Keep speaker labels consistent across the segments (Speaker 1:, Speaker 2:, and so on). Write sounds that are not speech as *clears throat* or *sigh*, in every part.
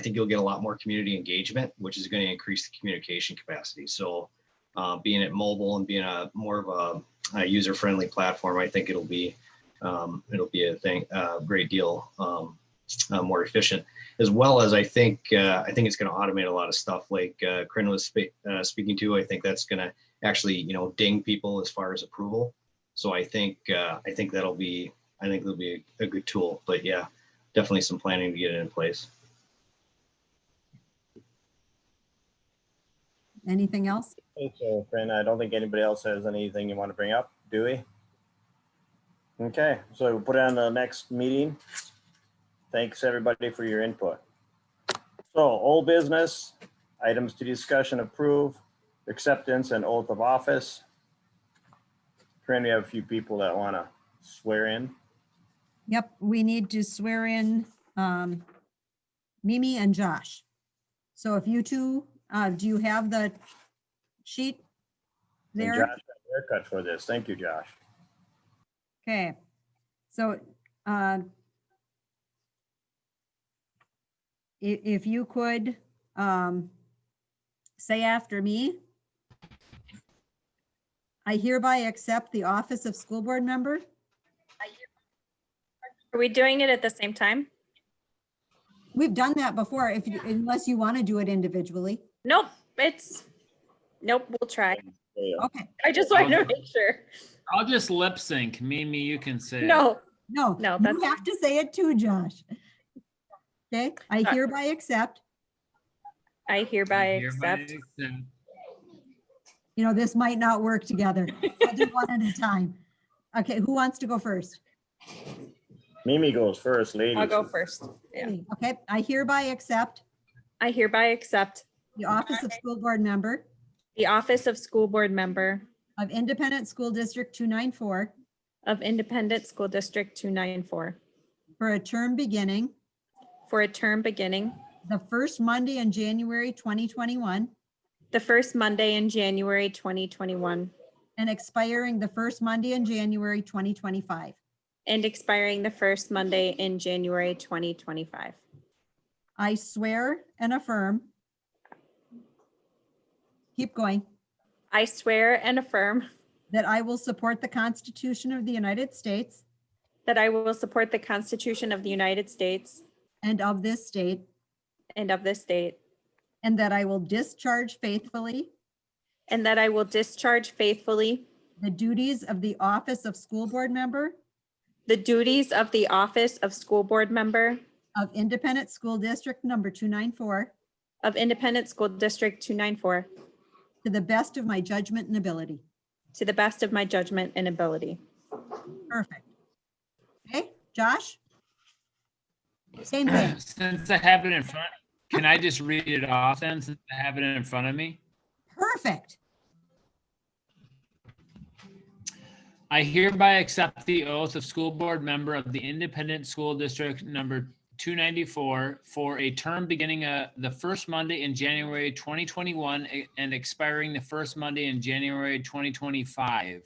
Speaker 1: think you'll get a lot more community engagement, which is going to increase the communication capacity. So uh, being it mobile and being a more of a, a user-friendly platform, I think it'll be um, it'll be a thing a great deal um, uh, more efficient, as well as I think uh, I think it's going to automate a lot of stuff like uh, Corinne was spe- uh, speaking to. I think that's going to actually you know ding people as far as approval. So I think uh, I think that'll be I think that'll be a, a good tool. But yeah, definitely some planning to get it in place.
Speaker 2: Anything else?
Speaker 3: Thank you, Corinne. I don't think anybody else has anything you want to bring up, do we? Okay, so we'll put it on the next meeting. Thanks, everybody, for your input. So old business, items to discussion, approve, acceptance and oath of office. Corinne, we have a few people that want to swear in.
Speaker 2: Yep, we need to swear in um, Mimi and Josh. So if you two, uh, do you have the sheet
Speaker 3: And
Speaker 2: there?
Speaker 3: Josh got a Haircut for this. Thank you, Josh.
Speaker 2: Okay, so, uh, i- if you could, um, say after me. I hereby accept the office of school board member.
Speaker 4: Are we doing it at the same time?
Speaker 2: We've done that before, if, you- unless you want to do it individually.
Speaker 4: Nope, it's, nope, we'll try.
Speaker 3: Yeah.
Speaker 2: Okay,
Speaker 4: I just wanted to make sure.
Speaker 5: I'll just lip sync. Mimi, you can say. it.
Speaker 4: No,
Speaker 2: no.
Speaker 4: No,
Speaker 2: You
Speaker 4: that's-
Speaker 2: have to say it too, Josh. Okay, I
Speaker 4: Uh,
Speaker 2: hereby accept,
Speaker 4: I hereby
Speaker 5: I
Speaker 4: accept.
Speaker 5: accept.
Speaker 2: you know, this might not work together. I'll do one at a time. Okay, who wants to go first?
Speaker 3: Mimi goes first, ladies.
Speaker 4: I'll go first. Yeah.
Speaker 2: Me, Okay, I hereby accept
Speaker 4: I hereby accept
Speaker 2: the office of school board member
Speaker 4: the office of school board member
Speaker 2: of Independent School District 294
Speaker 4: of Independent School District 294
Speaker 2: for a term beginning
Speaker 4: for a term beginning
Speaker 2: the first Monday in January 2021
Speaker 4: the first Monday in January 2021
Speaker 2: and expiring the first Monday in January 2025.
Speaker 4: and expiring the first Monday in January 2025.
Speaker 2: I swear and affirm. Keep going.
Speaker 4: I swear and affirm
Speaker 2: That I will support the Constitution of the United States
Speaker 4: that I will support the Constitution of the United States
Speaker 2: and of this state,
Speaker 4: and of this state
Speaker 2: and that I will discharge faithfully
Speaker 4: And that I will discharge faithfully
Speaker 2: the duties of the office of school board member
Speaker 4: the duties of the office of school board member
Speaker 2: of Independent School District Number 294
Speaker 4: of Independent School District 294
Speaker 2: to the best of my judgment and ability.
Speaker 4: to the best of my judgment and ability.
Speaker 2: Perfect. Okay, Josh? Same
Speaker 5: *clears throat*
Speaker 2: thing.
Speaker 5: Since I have it in front, can I just read it off then, since I have it in front of me?
Speaker 2: Perfect.
Speaker 5: I hereby accept the oath of school board member of the Independent School District Number 294 for a term beginning uh, the first Monday in January 2021 a- and expiring the first Monday in January 2025.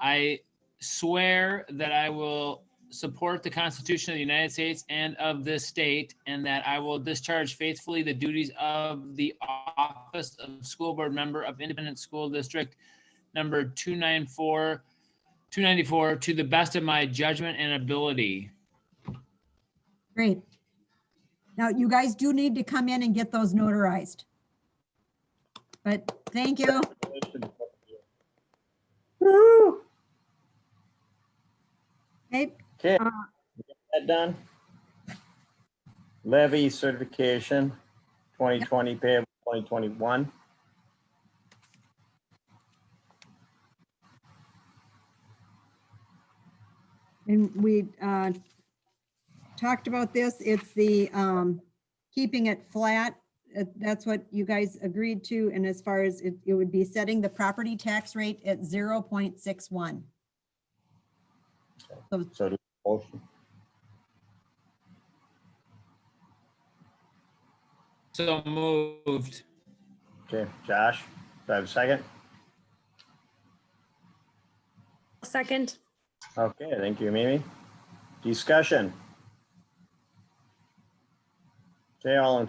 Speaker 5: I swear that I will support the Constitution of the United States and of this state, and that I will discharge faithfully the duties of the office of school board member of Independent School District Number 294 294 to the best of my judgment and ability.
Speaker 2: Great. Now, you guys do need to come in and get those notarized. But thank you.
Speaker 3: Woo!
Speaker 2: Okay,
Speaker 3: Okay, we got that done. Levy certification, twenty twenty payable twenty twenty-one.
Speaker 2: And we uh, talked about this. It's the um, keeping it flat. Uh, That's what you guys agreed to. And as far as it it would be setting the property tax rate at 0.61.
Speaker 3: So do motion.
Speaker 5: So moved.
Speaker 3: Okay, Josh, do I have a second?
Speaker 4: Second,
Speaker 3: Okay, thank you, Mimi. Discussion. Okay, all in